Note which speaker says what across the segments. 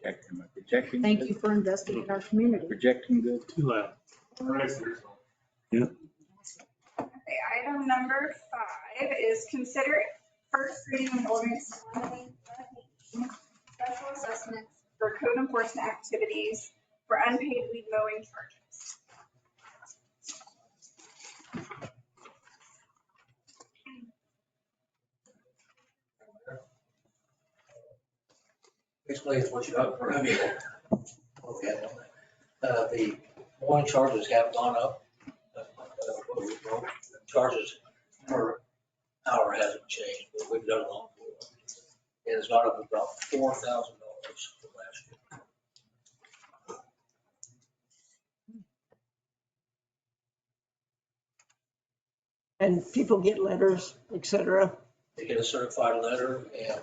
Speaker 1: Projecting, am I projecting?
Speaker 2: Thank
Speaker 1: good?
Speaker 2: you for investing in our community.
Speaker 1: Projecting good?
Speaker 3: Too loud.
Speaker 4: Okay, item number five is consider first reading of ordinance 118, special assessments for code enforcement activities for unpaid weed mowing charges.
Speaker 5: Basically, it's what you got in front of you. Uh, The mowing charges have gone up. Uh, what we know, the Charges per hour hasn't changed, but we've done a lot. more. It has gone up about four thousand dollars from last year.
Speaker 6: And people get letters, et cetera.
Speaker 5: They get a certified letter and uh,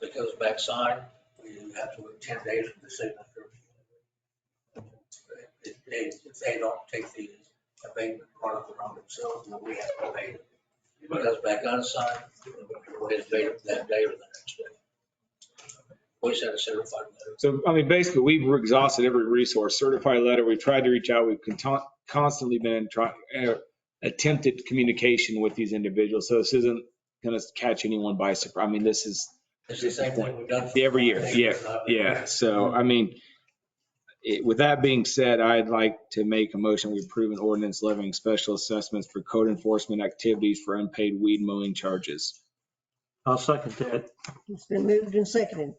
Speaker 5: if it goes back signed, you have to wait ten days for the signature. If they, if they don't take the abatement product around themselves, then we have to pay it. If it goes back unsigned, we have to pay it that day or the next day. We send a certified letter.
Speaker 7: So, I mean, basically, we've exhausted every resource, certified letter, we've tried to reach out, we've con- constantly been in try, uh, attempted communication with these individuals, so this isn't gonna catch anyone by surprise. I mean, this is
Speaker 5: It's the same thing we've done. for-
Speaker 7: every year, yeah, yeah. So, I mean, it, with that being said, I'd like to make a motion, we approve an ordinance levying special assessments for code enforcement activities for unpaid weed mowing charges.
Speaker 3: I'll second that.
Speaker 6: It's been moved and seconded.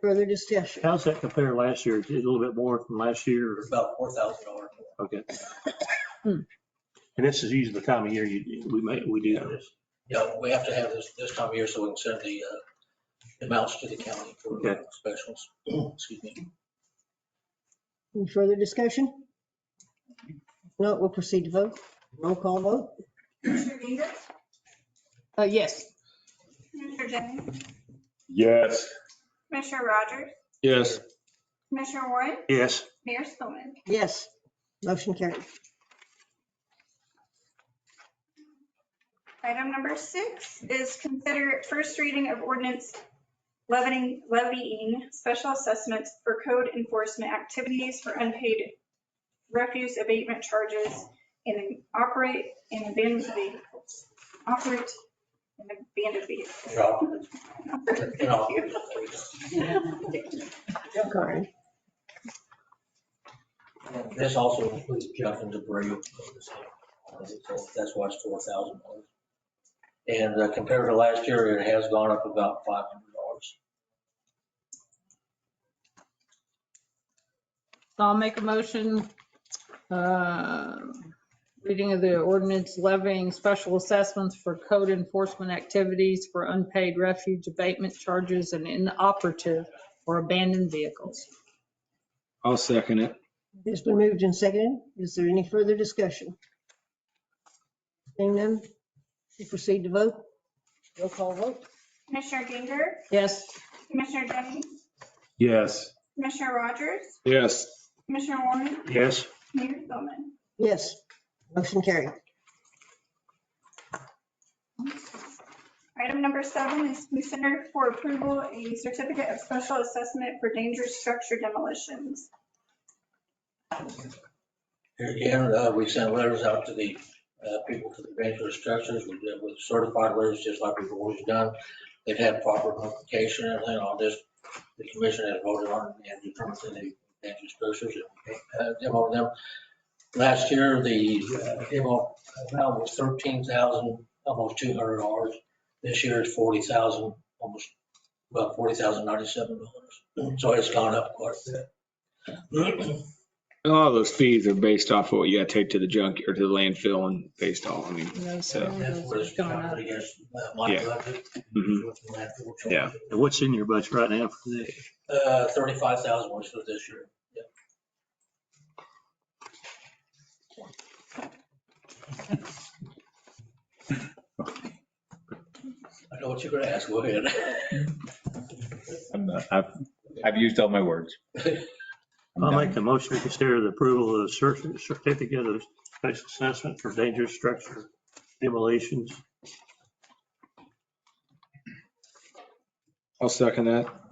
Speaker 6: Further discussion.
Speaker 3: How's that compare last year? Is it A little bit more from last year? or-
Speaker 5: It's About four thousand dollars.
Speaker 3: Okay. And this is usually the time of year you, we make, we do this.
Speaker 5: Yeah, we have to have this, this time of year so we can send the uh, amounts to the county for
Speaker 3: Okay.
Speaker 5: specials. Excuse me.
Speaker 6: Any further discussion? No, we'll proceed to vote. Roll call vote.
Speaker 4: Commissioner Davis?
Speaker 6: Uh, yes.
Speaker 4: Commissioner Jennings?
Speaker 8: Yes.
Speaker 4: Commissioner Rogers?
Speaker 7: Yes.
Speaker 4: Commissioner Warren?
Speaker 3: Yes,
Speaker 4: Mayor Spillman?
Speaker 6: Yes. Motion carried.
Speaker 4: Item number six is consider first reading of ordinance levying, levying special assessments for code enforcement activities for unpaid refuse abatement charges and operate and abandoned vehicles. Operate and abandoned vehicles.
Speaker 5: Yeah. You know,
Speaker 6: Sorry.
Speaker 5: and This also includes junk and debris. Uh, So That's why it's four thousand dollars. And uh, compared to last year, it has gone up about five hundred dollars.
Speaker 9: So I'll make a motion, uh, reading of the ordinance levying special assessments for code enforcement activities for unpaid refuge abatement charges and inoperative or abandoned vehicles.
Speaker 7: I'll second it.
Speaker 6: It's been moved and seconded. Is there any further discussion? Seeing none, we proceed to vote. Roll call vote.
Speaker 4: Commissioner Ginger,
Speaker 9: Yes,
Speaker 4: Commissioner Jennings,
Speaker 8: Yes.
Speaker 4: Commissioner Rogers,
Speaker 7: Yes.
Speaker 4: Commissioner Warren,
Speaker 3: yes.
Speaker 4: Mayor Spillman.
Speaker 6: Yes. Motion carried.
Speaker 4: Item number seven is consider for approval a certificate of special assessment for dangerous structure demolitions.
Speaker 5: Here again, uh, we sent letters out to the uh, people to the dangerous structures. We did with certified letters, just like we've always done. They've had proper notification and everything on this. The commission has voted on it and determined that the dangerous structures and uh, demo them. Last year, the uh, demo amount was thirteen thousand, almost two hundred dollars. This year is forty thousand, almost, well, forty thousand ninety-seven dollars. So it's gone up quite a bit.
Speaker 7: And all those fees are based off of what you gotta take to the junk or to the landfill and based on, I mean,
Speaker 9: you know, so
Speaker 7: So-
Speaker 5: That's what
Speaker 9: those
Speaker 5: it's
Speaker 9: are going up.
Speaker 5: covered against uh, my
Speaker 7: Yeah.
Speaker 5: budget.
Speaker 7: Mhm.
Speaker 5: With the landfill charge.
Speaker 7: Yeah.
Speaker 3: And what's in your budget right now for this?
Speaker 5: Uh, thirty-five thousand was for this year. Yeah. I know what you're gonna ask, go ahead.
Speaker 1: I'm not, I've, I've used all my words. I'm
Speaker 3: I'll
Speaker 1: done.
Speaker 3: make a motion to consider the approval of the cer- certificate of special assessment for dangerous structure demolitions.
Speaker 7: I'll second that.